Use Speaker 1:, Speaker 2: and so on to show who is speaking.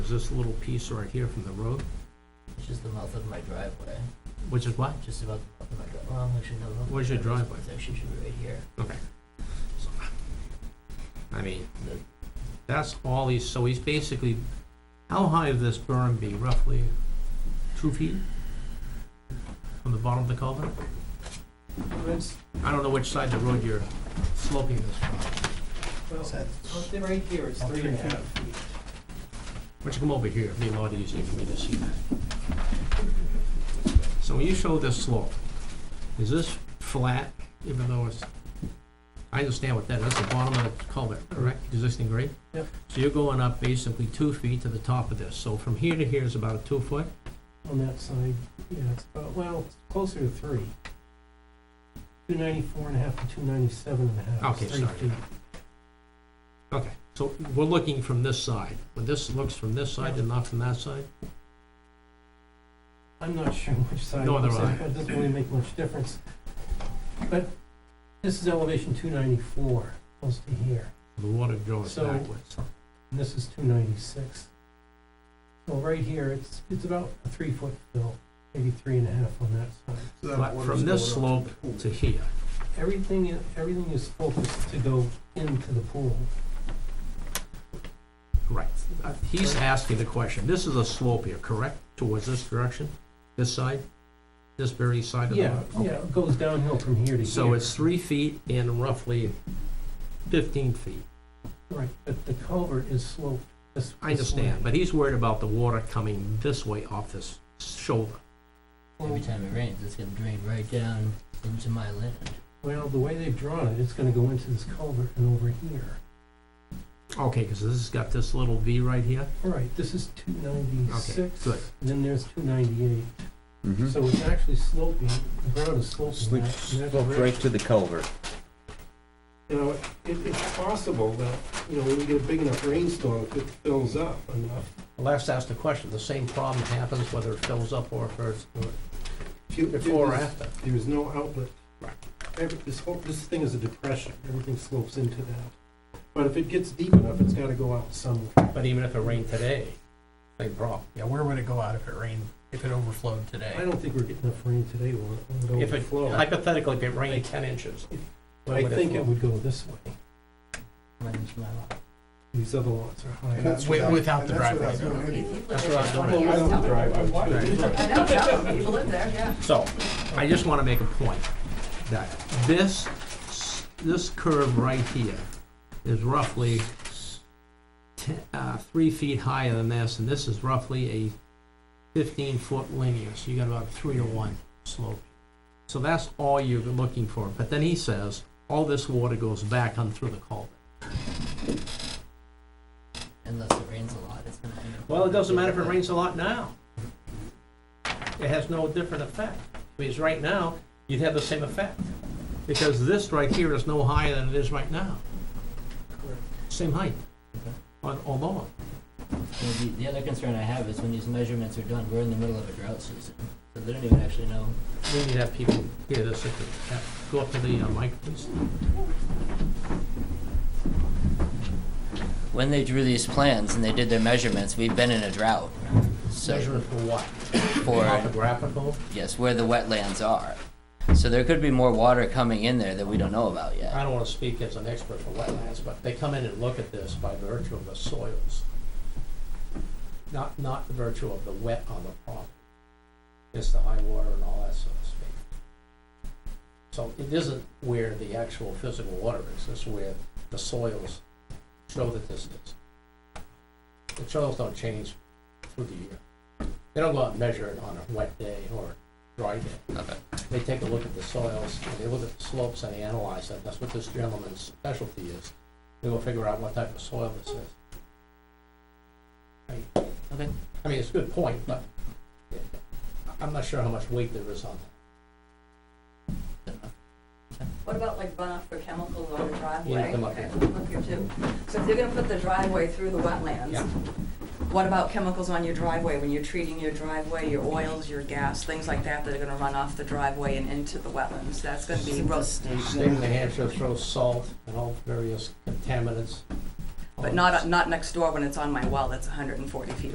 Speaker 1: this little piece right here from the road,
Speaker 2: It's just the mouth of my driveway,
Speaker 1: which is what?
Speaker 2: just about the mouth of my driveway. Well, actually, no. no,
Speaker 1: Where's your
Speaker 2: this-
Speaker 1: driveway?
Speaker 2: This actually should be right here.
Speaker 1: Okay. So, I mean, the- that's all he's, so he's basically, how high of this berm be roughly? Two feet? From the bottom of the culvert?
Speaker 3: It's,
Speaker 1: I don't know which side of the road you're sloping this from.
Speaker 3: well, something right here, it's three and a half feet.
Speaker 1: Why don't you come over here? It'd be a lot easier for me to see that. So when you show this slope, is this flat, even though it's, I understand what that is, the bottom of the culvert, correct, existing grade?
Speaker 3: Yep.
Speaker 1: So you're going up basically two feet to the top of this, so from here to here is about a two foot?
Speaker 3: On that side, yeah, it's about, well, it's closer to three. Two ninety-four and a half to two ninety-seven and a half.
Speaker 1: Okay,
Speaker 3: It's three
Speaker 1: sorry.
Speaker 3: feet.
Speaker 1: Okay, so we're looking from this side, when this looks from this side and not from that side?
Speaker 3: I'm not sure which side.
Speaker 1: Nor
Speaker 3: it looks
Speaker 1: do
Speaker 3: like,
Speaker 1: I.
Speaker 3: but It doesn't really make much difference. But this is elevation two ninety-four, close to here,
Speaker 1: The water goes
Speaker 3: So-
Speaker 1: backwards.
Speaker 3: and this is two ninety-six. So right here, it's, it's about a three-foot fill, maybe three and a half on that side.
Speaker 1: But from this slope to here,
Speaker 3: Everything, i- everything is focused to go into the pool.
Speaker 1: Right. Uh, He's asking the question, this is a slope here, correct, towards this direction, this side, this very side of the
Speaker 3: Yeah,
Speaker 1: road?
Speaker 3: yeah, it goes downhill from here to here.
Speaker 1: So it's three feet and roughly fifteen feet.
Speaker 3: Right, but the culvert is sloped this.
Speaker 1: I
Speaker 3: this way.
Speaker 1: understand, but he's worried about the water coming this way off this shoulder. Oh.
Speaker 2: Every time it rains, it's gonna drain right down into my land.
Speaker 3: Well, the way they've drawn it, it's gonna go into this culvert and over here.
Speaker 1: Okay, because this has got this little V right here.
Speaker 3: All right, this is two ninety-six.
Speaker 1: good.
Speaker 3: And then there's two ninety-eight.
Speaker 4: Mm-hmm.
Speaker 3: So it's actually sloping, the ground is sloping that. in that
Speaker 4: Right
Speaker 3: direction.
Speaker 4: to the culvert.
Speaker 5: You know, it, it's possible that, you know, when we get a big enough rainstorm, if it fills up enough,
Speaker 1: Let's ask the question, the same problem happens whether it fills up or if it's
Speaker 5: if you- if
Speaker 1: before or
Speaker 5: there's-
Speaker 1: after.
Speaker 5: There is no outlet.
Speaker 1: Right.
Speaker 5: Every, this whole, this thing is a depression, everything slopes into that. But if it gets deep enough, it's gotta go out somewhere.
Speaker 1: But even if it rained today, same problem.
Speaker 6: Yeah, where would it go out if it rained, if it overflowed
Speaker 3: I
Speaker 6: today?
Speaker 3: don't think we're getting enough rain today, will it? Will it
Speaker 1: If it,
Speaker 3: overflow?
Speaker 1: hypothetically, if it rained ten inches, what
Speaker 5: I
Speaker 1: would it
Speaker 5: think
Speaker 3: It
Speaker 5: it-
Speaker 3: would go this way.
Speaker 2: Right into my lot.
Speaker 5: These other lots are higher.
Speaker 6: Wi- Without the driveway.
Speaker 1: That's what I'm doing.
Speaker 5: Well, without the driveway, too.
Speaker 7: I know, yeah, people live there, yeah.
Speaker 1: So, I just wanna make a point, that this, s- this curve right here is roughly s- te- uh, three feet higher than this, and this is roughly a fifteen-foot linear, so you got about three to one slope. So that's all you're looking for, but then he says, all this water goes back on through the culvert.
Speaker 2: Unless it rains a lot, it's gonna. end up-
Speaker 1: Well, it doesn't matter if it rains a lot now. It has no different effect, because right now, you'd have the same effect. Because this right here is no higher than it is right now. Same height, or or lower.
Speaker 2: You know, The, the other concern I have is when these measurements are done, we're in the middle of a drought season, so they don't even actually know.
Speaker 1: We need to have people hear this, if they- go up to the uh, mic, please.
Speaker 2: When they drew these plans and they did their measurements, we've been in a drought. So
Speaker 1: Measurement for what?
Speaker 2: for,
Speaker 1: Topographical?
Speaker 2: yes, where the wetlands are. So there could be more water coming in there that we don't know about yet.
Speaker 1: I don't wanna speak as an expert for wetlands, but they come in and look at this by virtue of the soils. Not, not the virtue of the wet on the property. It's the high water and all that, so to speak. So it isn't where the actual physical water is, it's where the soils show that this is. The soils don't change through the year. They don't go out and measure it on a wet day or dry day
Speaker 2: Okay.
Speaker 1: they take a look at the soils, and they look at the slopes and they analyze them. That's what this gentleman's specialty is. They will figure out what type of soil this is. Right.
Speaker 2: Okay.
Speaker 1: I mean, it's a good point, but I'm not sure how much weight there is on that.
Speaker 7: What about like runoff for chemicals on a driveway?
Speaker 1: You need to come up
Speaker 7: Okay,
Speaker 1: here.
Speaker 7: come up here too. So if you're gonna put the driveway through the wetlands,
Speaker 1: Yeah.
Speaker 7: what about chemicals on your driveway, when you're treating your driveway, your oils, your gas, things like that that are gonna run off the driveway and into the wetlands? That's gonna be, real-
Speaker 1: State of New Hampshire throws salt and all various contaminants.
Speaker 7: but not, not next door when it's on my well that's hundred and forty feet